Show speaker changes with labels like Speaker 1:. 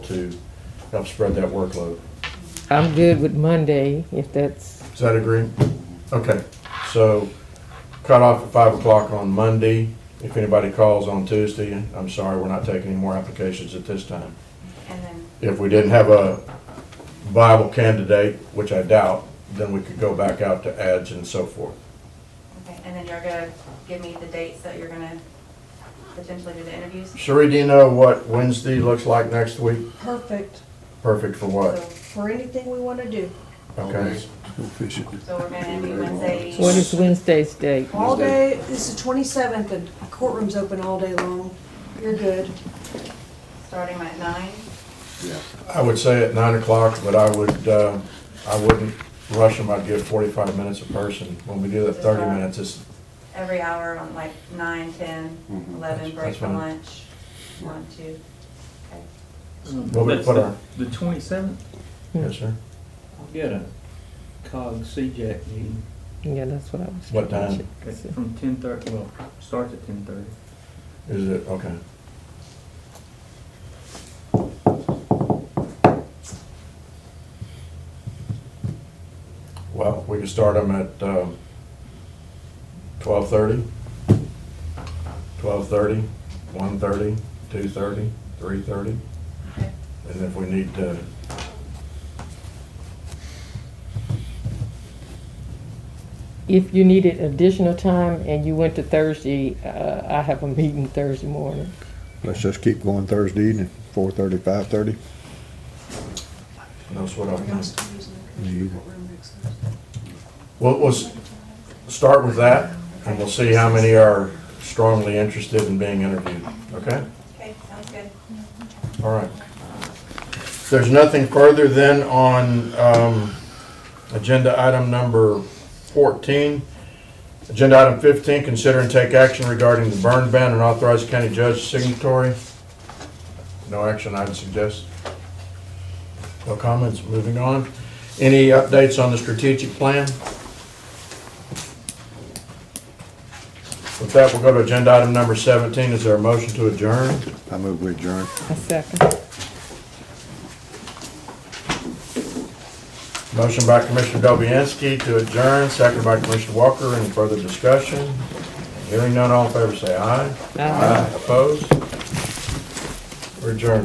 Speaker 1: to help spread that workload.
Speaker 2: I'm good with Monday, if that's,
Speaker 1: Is that agreed? Okay, so cut off at five o'clock on Monday. If anybody calls on Tuesday, I'm sorry, we're not taking any more applications at this time.
Speaker 3: And then,
Speaker 1: If we didn't have a viable candidate, which I doubt, then we could go back out to ads and so forth.
Speaker 3: okay, and then you're gonna give me the dates that you're gonna potentially do the interviews?
Speaker 1: Sheree, do you know what Wednesday looks like next week?
Speaker 4: perfect
Speaker 1: Perfect for
Speaker 3: So,
Speaker 1: what?
Speaker 4: for anything we want to do.
Speaker 1: Okay,
Speaker 3: so we're gonna interview Wednesday.
Speaker 2: what is Wednesday's date?
Speaker 4: All day, this is twenty-seventh, and courtroom's open all day long. You're good.
Speaker 3: Starting at nine,
Speaker 1: I would say at nine o'clock, but I would, uh, I wouldn't rush them. I'd give forty-five minutes a person. When we do the thirty minutes, it's,
Speaker 3: every hour on like nine, ten, eleven,
Speaker 5: Mhm.
Speaker 1: Mm-hmm. That's-
Speaker 3: break
Speaker 1: that's
Speaker 3: for
Speaker 1: fine.
Speaker 3: lunch, one, two. Okay.
Speaker 1: Well, we
Speaker 6: Um, That's
Speaker 1: put our-
Speaker 6: The twenty-seventh,
Speaker 1: yes, sir.
Speaker 6: we got a COG CJAC meeting
Speaker 2: Yeah, that's what I was.
Speaker 1: What time?
Speaker 6: at- from ten thirty, well, starts at ten thirty.
Speaker 1: Is it, okay. Well, we can start them at, um, twelve-thirty, twelve-thirty, one-thirty, two-thirty, three-thirty.
Speaker 3: Okay.
Speaker 1: And if we need uh, to,
Speaker 2: If you needed additional time and you went to Thursday, uh, I have a meeting Thursday morning.
Speaker 5: Let's just keep going Thursday evening, four thirty, five thirty.
Speaker 1: that's what
Speaker 4: We're gonna
Speaker 1: I'm,
Speaker 4: start using
Speaker 5: You-
Speaker 4: the courtroom next Thursday.
Speaker 1: we'll, we'll s- start with that, and we'll see how many are strongly interested in being interviewed, okay?
Speaker 3: Okay, sounds good.
Speaker 1: All right. There's nothing further then on um, agenda item number 14. Agenda item 15, consider and take action regarding the burn ban and authorize county judge signatory. No action, I'd suggest. No comments, moving on. Any updates on the strategic plan? With that, we'll go to agenda item number 17. Is there a motion to adjourn?
Speaker 5: I move we adjourn.
Speaker 2: A second.
Speaker 1: Motion by Commissioner Dobianski to adjourn, second by Commissioner Walker. Any further discussion? Hearing none, all in favor say aye.
Speaker 2: Aye.
Speaker 1: Opposed? We're adjourned.